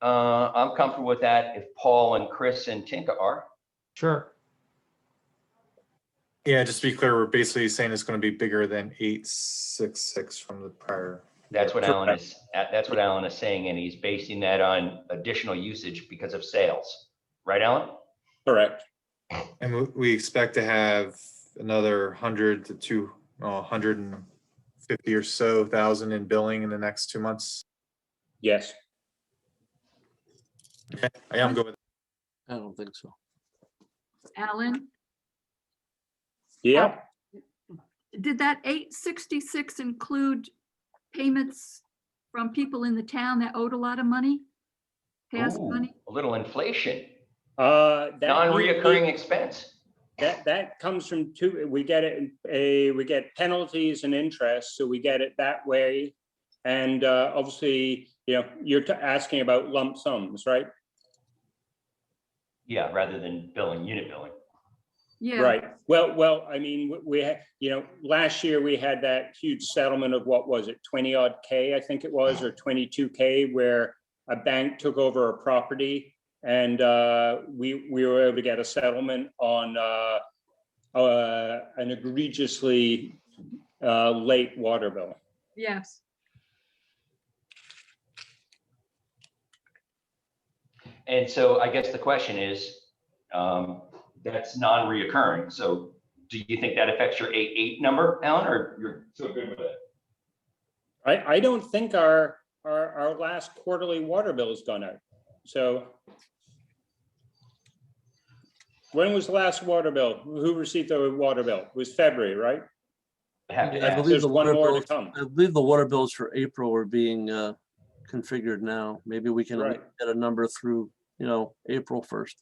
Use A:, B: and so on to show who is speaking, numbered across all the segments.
A: Uh, I'm comfortable with that if Paul and Chris and Tinka are.
B: Sure.
C: Yeah, just to be clear, we're basically saying it's going to be bigger than eight, six, six from the prior.
A: That's what Alan is, that- that's what Alan is saying, and he's basing that on additional usage because of sales. Right, Alan?
D: Correct.
C: And we- we expect to have another hundred to two, oh, hundred and fifty or so thousand in billing in the next two months.
D: Yes.
C: I am going,
E: I don't think so.
F: Alan,
D: Yeah,
F: did that eight sixty-six include payments from people in the town that owed a lot of money? Past
D: Oh,
A: Ooh,
F: money?
A: A little inflation,
D: uh. that-
A: non-reoccurring expense.
D: That, that comes from two, we get it, eh, we get penalties and interest, so we get it that way. And uh, obviously, you know, you're t- asking about lump sums, right?
A: Yeah, rather than billing, unit billing.
F: Yeah.
D: Right. Well, well, I mean, we- we, had- you know, last year we had that huge settlement of what was it, 20 odd K, I think it was, or 22 K, where a bank took over a property and uh, we, we were able to get a settlement on uh, uh, an egregiously uh, late water bill.
F: Yes.
A: And so I guess the question is, um, that's non-reoccurring, so do you think that affects your eight, eight number, Alan, or you're so good with it?
D: I, I don't think our, our, our last quarterly water bill has gone out. So when was the last water bill? Who received the water bill? It was February, right?
A: I have to
E: I
A: ask.
E: believe
D: There's
E: the
D: one
E: water
D: more
E: bill-
D: to come.
E: I believe the water bills for April are being uh, configured now. Maybe we can at least get a number through, you know, April first.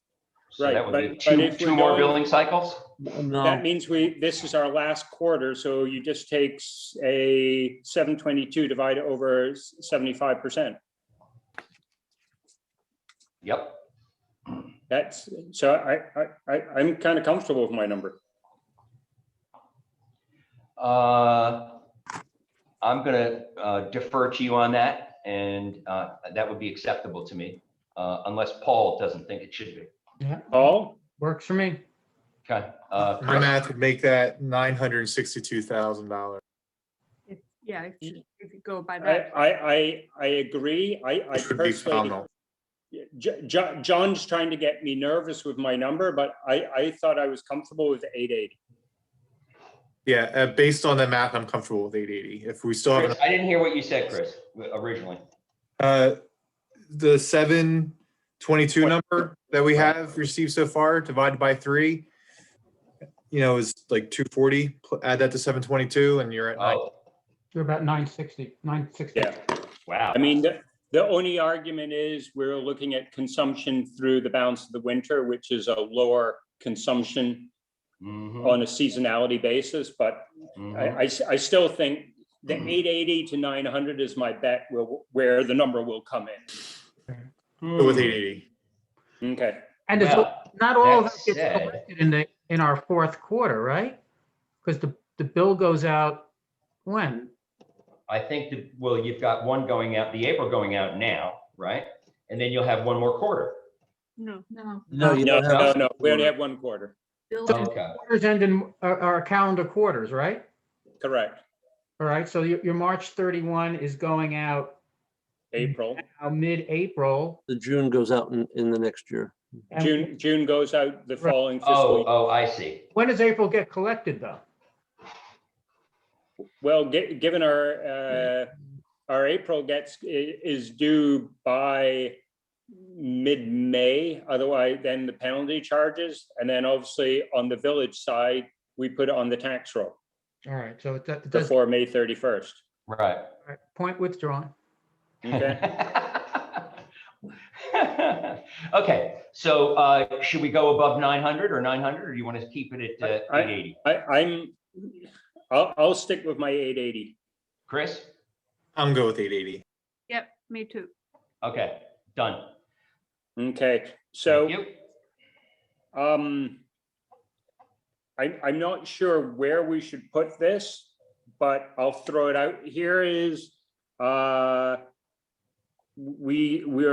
A: So
D: right,
A: that would be
D: but- but
A: two,
D: if
A: two
D: we're
A: more
D: going-
A: billing cycles?
D: That
E: No,
D: means we, this is our last quarter, so you just take s- a seven twenty-two divided over seventy-five percent.
A: Yep,
D: That's, so I, I, I, I'm kind of comfortable with my number.
A: uh, I'm gonna uh, defer to you on that, and, uh, that would be acceptable to me, uh, unless Paul doesn't think it should be.
B: Yeah,
D: Paul?
B: works for me.
A: Okay, uh,
C: my
A: Chris,
C: math would make that nine hundred and sixty-two thousand dollars.
F: If- Yeah, if you if you go by
D: I,
F: that.
D: I, I, I agree. I, I
C: It would be
D: personally.
C: phenomenal.
D: Yeah, Jo- Jo- John's trying to get me nervous with my number, but I, I thought I was comfortable with eight eighty.
C: Yeah, uh, based on the math, I'm comfortable with eight eighty. If we still have an
A: Chris, I didn't hear what you said, Chris, originally.
C: Uh The seven twenty-two number that we have received so far divided by three, you know, is like two forty, add that to seven twenty-two and you're at nine.
A: Oh,
B: You're about nine sixty, nine sixty.
D: Yeah,
A: wow.
D: I mean, the, the only argument is we're looking at consumption through the balance of the winter, which is a lower consumption
A: Mhm,
D: on a seasonality basis, but I,
A: mhm.
D: I s- I still think the eight eighty to nine hundred is my bet will, where the number will come
C: Go With eight eighty.
D: in. Okay,
B: And it's,
A: Well,
B: not all of
A: that
B: that gets
A: said-
B: collected in the, in our fourth quarter, right? Because the, the bill goes out when?
A: I think that, well, you've got one going out, the April going out now, right? And then you'll have one more quarter.
F: No. No.
E: no, you
D: no,
E: don't
D: no,
E: have.
D: no, we only have one quarter,
F: Bill-
A: Okay,
B: Quarters end in, are, are calendar quarters, right?
D: correct,
B: All right, so your, your March thirty-one is going out
D: April.
B: uh, mid-April.
E: The June goes out in, in the next year.
B: and
D: June, June goes out the
B: Right.
D: following fiscal
A: oh,
D: year.
A: oh, I see.
B: When does April get collected, though?
D: Well, gi- given our, uh, our April gets, i- is due by mid-May, otherwise then the penalty charges. And then obviously on the village side, we put it on the tax roll
B: All right, so it do- it does,
D: before May 31st.
A: Right.
B: all right, point withdrawn.
D: Okay,
A: Okay, so uh, should we go above 900 or 900, or do you want to keep it at uh,
D: I- I-
A: 880?
D: I, I'm, I'll, I'll stick with my 880.
A: Chris?
C: I'm good with eight eighty.
F: Yep, me too.
A: Okay, done.
D: Okay, so.
A: Thank you.
D: Um, I, I'm not sure where we should put this, but I'll throw it out. Here is, uh, we, we are.